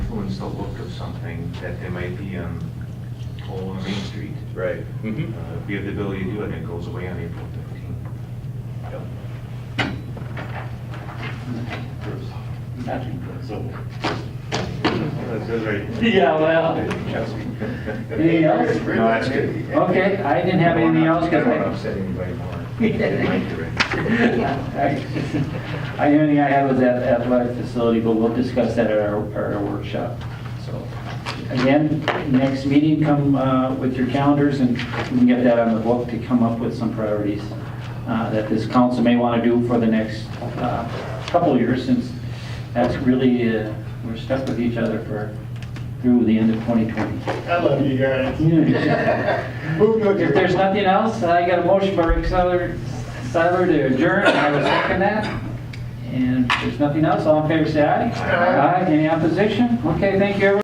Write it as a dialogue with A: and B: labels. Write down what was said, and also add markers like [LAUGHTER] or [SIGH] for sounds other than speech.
A: wants to look at something that they might be um, on Old Main Street.
B: Right.
A: Uh,
B: Mhm.
A: We have the ability to do it, and it goes away on April fifteenth.
B: Yep.
A: That says right.
C: Yeah, well, anything else?
A: No, that's good.
C: Okay, I didn't have anything else
A: I
C: because
A: don't want to
C: I,
A: upset anybody
C: [LAUGHS]
A: more. They might do it.
C: I, the only thing I had was that athletic facility, but we'll discuss that at our, our workshop, so. Again, next meeting, come, uh, with your calendars and we can get that on the book to come up with some priorities, uh, that this council may want to do for the next, uh, couple years since that's really, uh, we're stuck with each other for, through the end of 2020.
D: I love you guys.
C: [LAUGHS]
D: Move to
C: If there's nothing else, I got a motion by Rick Seiler Seiler to adjourn, I will second that. And if there's nothing else, all in favor, say aye.
D: Aye.
C: Aye, any opposition? Okay, thank you, everyone.